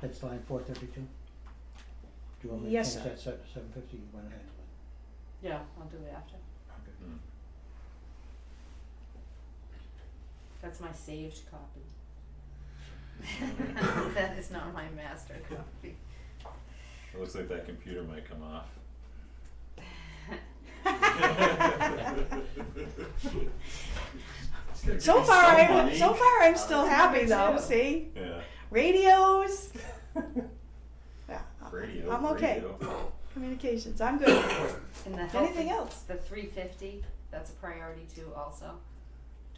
That's line four thirty-two? Do you want me to Yes, finish sir. that seven, seven fifty, you went ahead with Yeah, I'll do it after. it? Mm. That's my saved copy. That is not my master copy. It looks like that computer might come off. So It's far, so I'm funny. so far I'm still Oh, happy that's though. good. See, Yeah, radios. yeah, I- radio, Uh, I'm okay. radio. Communications, I'm good. And the health, Anything else? the three fifty, that's a priority too also,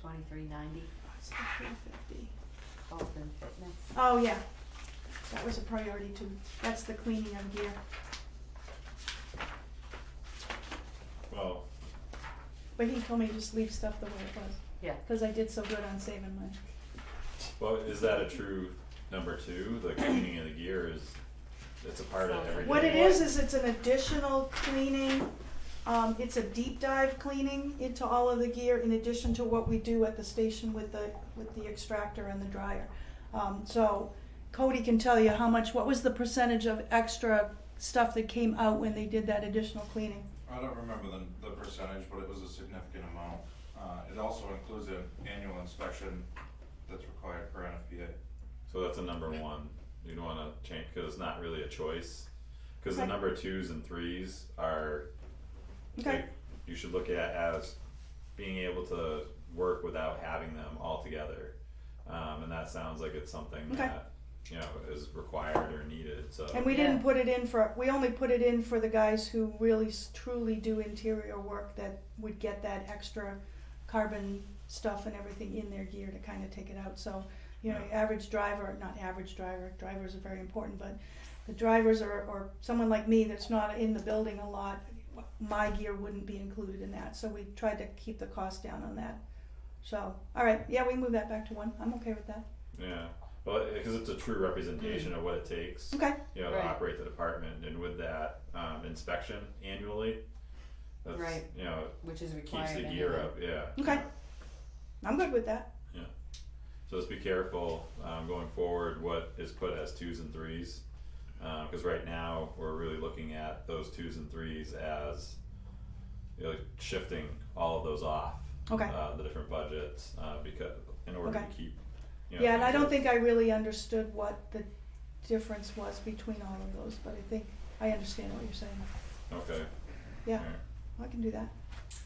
twenty-three ninety, health and fitness. Oh yeah, that was a priority too. That's the cleaning of gear. Well, But he told me just leave stuff the way it was. Yeah. Because I did so good on saving money. well, is that a true number two? The cleaning of the gear is, it's a part of everything. What it is is it's an additional cleaning. Um, it's a deep dive cleaning into all of the gear in addition to what we do at the station with the with the extractor and the dryer. Um, so Cody can tell you how much. What was the percentage of extra stuff that came out when they did that additional cleaning? I don't remember the, the percentage, but it was a significant amount. Uh, it also includes an annual inspection that's required for NFPA. So that's a number one, you'd wanna change, cause it's not really a choice, cause the Right. number twos and threes are. Okay. like, You should look at as being able to work without having them all together, um, and that sounds like it's something Okay. that, you know, is required or needed, so. And we didn't Yeah. put it in for, we only put it in for the guys who really s- truly do interior work that would get that extra carbon stuff and everything in their gear to kind of take it out. So, you know, Yeah. average driver, not average driver, drivers are very important, but the drivers or, or someone like me that's not in the building a lot, my gear wouldn't be included in that. So we tried to keep the cost down on that. So, all right, yeah, we move that back to one. I'm okay with that. Yeah, well, cause it's a true representation of what it takes. Mm. Okay. you know, to Right. operate the department and with that um inspection annually. That's, Right. you know, Which is required. keeps the gear anyway. up, yeah. Okay. I'm good with that. So just be careful um going forward what is put as twos and threes. Um, cause right now, we're really looking at those twos and threes as you know, like shifting all of those off. Okay. Uh the different budgets, uh because in order to Okay. keep, you know. Yeah, and I don't budgets. think I really understood what the difference was between all of those, but I think I understand what you're saying. Okay. Yeah, alright, I can do that.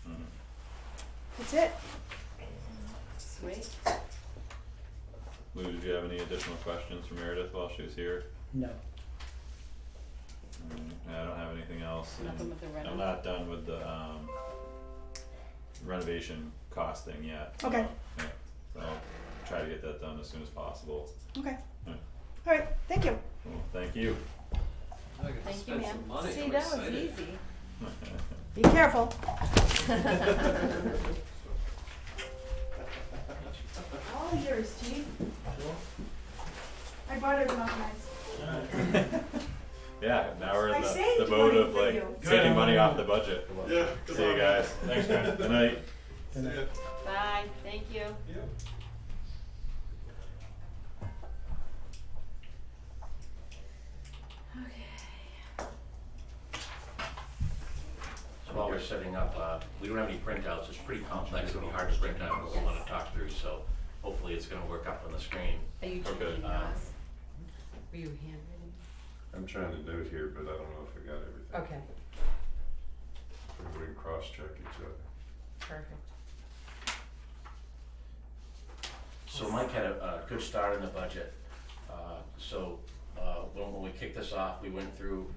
mhm. That's it. Sweet. Lou, did you have any additional questions for Meredith while she was here? No, Mm, I don't have anything else. and Nothing with the I'm rental. not done with the um renovation cost thing yet. Okay. so, Yeah, so I'll try to get that done as soon as possible. Okay. Yeah. All right, thank you. Well, thank you. I could Thank you, spend ma'am. some money. See, I'm that was excited. easy. Be careful. All yours, chief. I bought it off nice. Yeah, now we're I in the saved the mode money of for like you. taking money off the budget. Yeah. See you guys. Thanks, man. Good night. Then I- Bye, thank you. So while we're setting up, uh, we don't have any printouts, it's pretty complex, it'll be hard to print out what we wanna talk through, so hopefully it's gonna work up on the screen. Are you Okay. checking Uh, yours? Were you handwriting? I'm trying to note here, but I don't know if I got everything. Okay, If We can cross-check each other. perfect. So Mike had a, a good start in the budget. Uh, So, uh, when, when we kicked this off, we went through,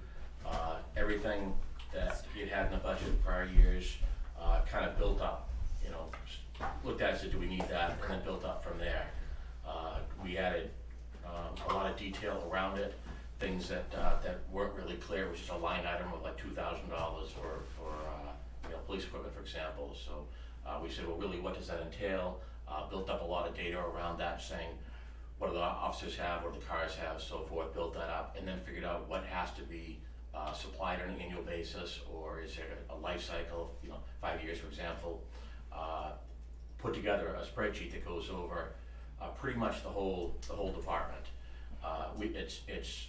uh, everything that he had had in the budget prior years, uh, kind of built up, you know, s- looked at it, said, do we need that, and then built up from there. Uh, we added, um, a lot of detail around it, things that, uh, that weren't really clear, which is a line item of like two thousand dollars for, for, uh, you know, police equipment, for example, so, uh, we said, well, really, what does that entail? Uh, built up a lot of data around that, saying, what do the officers have, what do the cars have, so forth, built that up, and then figured out what has to be, uh, supplied on an annual basis, or is there a life cycle, you know, five years, for example. Uh, put together a spreadsheet that goes over, uh, pretty much the whole, the whole department. uh, we, it's, it's